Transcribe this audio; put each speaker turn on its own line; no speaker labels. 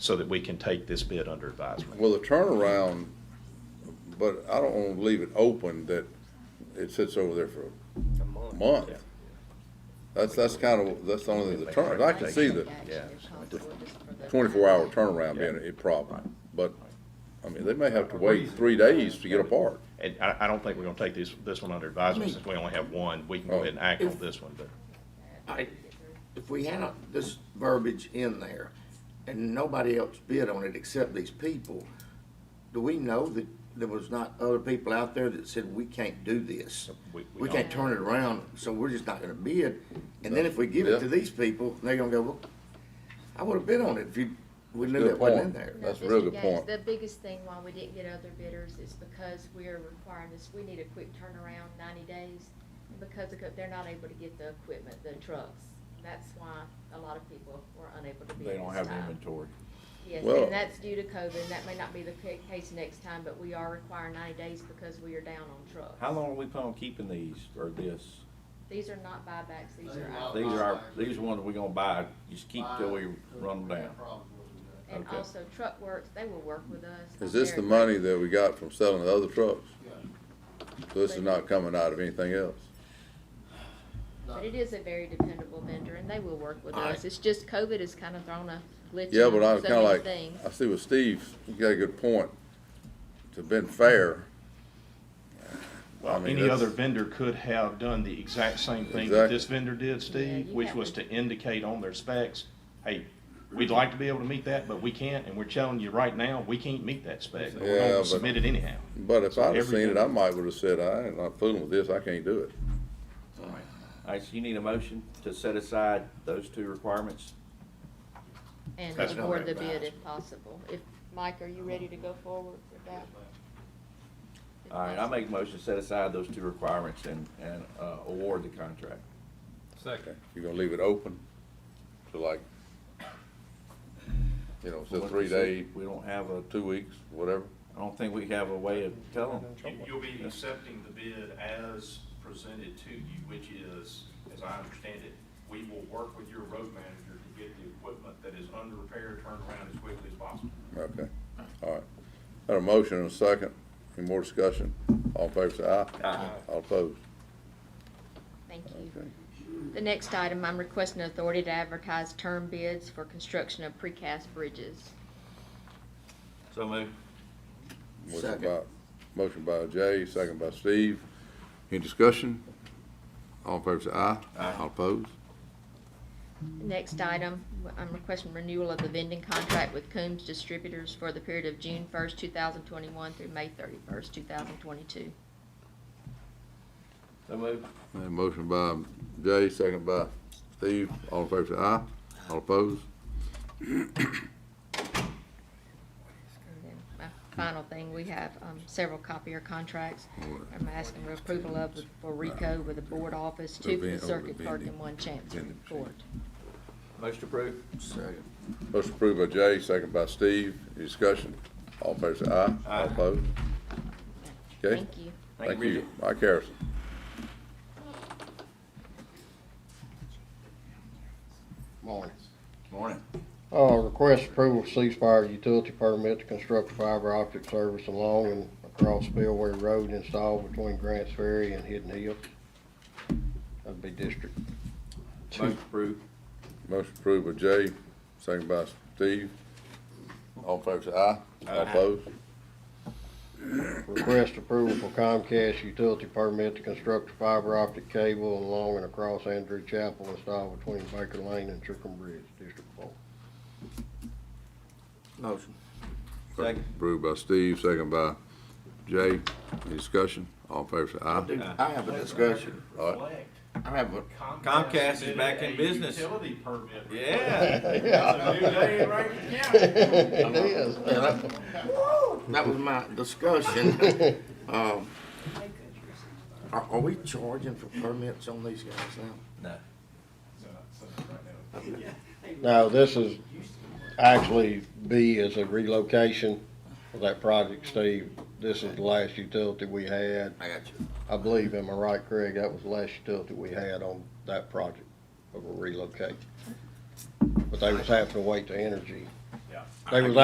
so that we can take this bid under advisement.
Well, the turnaround, but I don't wanna leave it open that it sits over there for a month.
Yeah.
That's, that's kind of, that's the only, thing. the turn, I can see the
Yeah.
twenty-four hour turnaround being a problem, but, I mean, they may have to wait three days to get a part.
And I, I don't think we're gonna take this, this one under advisement,
Me.
since we only have one, we can go ahead and act on this one, but.
I, if we had a- this verbiage in there and nobody else bid on it except these people, do we know that there was not other people out there that said, we can't do this?
We- we
We can't
don't.
turn it around, so we're just not gonna bid. And then if we give it to
Yeah.
these people, they're gonna go, well, I would've bid on it if you, we knew
Good
that wasn't in
point.
there.
That's a
No,
real
Mr.
good
Gaines,
point.
The biggest thing why we didn't get other bidders is because we are requiring this, we need a quick turnaround, ninety days. and Because the co- they're not able to get the equipment, the trucks. That's why a lot of people were unable to bid
They don't
this
have the
time.
inventory.
Yes,
Well-
and that's due to COVID, and that may not be the ca- case next time, but we are requiring ninety days because we are down on trucks.
How long are we planning on keeping these, or this?
These are not buybacks, these
These
are
are
out.
These are our, these are ones we gonna buy, just keep till we run them down.
And
okay.
also Truck Works, they will work with us.
Is
I'm
this the
very
money that we got from selling the other trucks? So this is not coming out of anything else?
But it is a very dependable vendor, and they will work with us.
Alright.
It's just COVID has kind of thrown a glitch
Yeah, but I
on
was
so
kinda
many
like,
things.
I see what Steve's, he got a good point. To been fair, I
Well,
mean,
any
that's-
other vendor could have done the exact same thing that
Exactly.
this vendor did, Steve,
you
which
have
was
to-
to indicate on their specs, hey, we'd like to be able to meet that, but we can't, and we're telling you right now, we can't meet that spec, but we're
Yeah,
gonna
but-
submit it anyhow.
but if I'd have seen it, I
Everything.
might would've said, I ain't not fooling with this, I can't do it.
Alright, so you need a motion to set aside those two requirements?
And
That's
award
not
the bid
advised.
if possible. If, Mike, are you ready to go forward with that? If
Alright, I
possible.
make a motion to set aside those two requirements and, and, uh, award the contract.
Okay, You're gonna leave it open to like, you know, so three day,
We don't have a,
two weeks, whatever.
I don't think we have a way of telling.
You- You'll be accepting the bid as presented to you, which is, as I understand it, we will work with your road manager to get the equipment that is under repair turned around as quickly as possible.
Okay, all right. Got a motion and a second. Any more discussion? All in favor say aye.
Aye.
All opposed?
Thank
Okay.
you. The next item, I'm requesting authority to advertise term bids for construction of precast bridges.
So move.
Motion
Second.
by, motion by Jay, second by Steve. Any discussion? All in favor say aye.
Aye.
All opposed?
Next item, I'm requesting renewal of the vending contract with Coombs Distributors for the period of June first, two thousand twenty-one through May thirty-first, two thousand twenty-two.
So move.
And motion by Jay, second by Steve. All in favor say aye. All opposed?
And then my final thing, we have um, several copier contracts. I'm asking for approval of with- for Rico with the board office, two for the
Event-
circuit clerk
vending-
and one chancery
vending machine.
court.
Motion approved.
Second.
Motion approved by Jay, second by Steve. Any discussion? All in favor say aye.
Aye.
All opposed? Okay.
Thank you.
Thank you,
Thank you.
Bridget.
Mike Harrison.
Morning.
Morning.
Uh, request approval of ceasefire utility permit to construct fiber optic service along and across Spillway Road installed between Grants Ferry and Hidden Hill. That'd be District Two.
Motion approved.
Motion approved by Jay, second by Steve. All in favor say aye. All opposed?
Request approval for Comcast utility permit to construct a fiber optic cable along and across Andrew Chapel installed between Baker Lane and Chicken Bridge, District Four.
Motion. Second.
Approved by Steve, second by Jay. Any discussion? All in favor say aye.
Dude, I have a discussion.
All right.
Reflect,
I have a,
Uh, Comcast is
submitted
back in
a
business.
Utility permit.
Yeah.
It's a new day in Rankin County.
It is.
that was my discussion. Um, Are, are we charging for permits on these guys now?
No.
No, this is actually B is a relocation of that project, Steve. This is the last utility we had.
I got you.
I believe, am I right, Craig? That was the last utility we had on that project of a relocate. But they was having to wait to energy
Yeah.
They was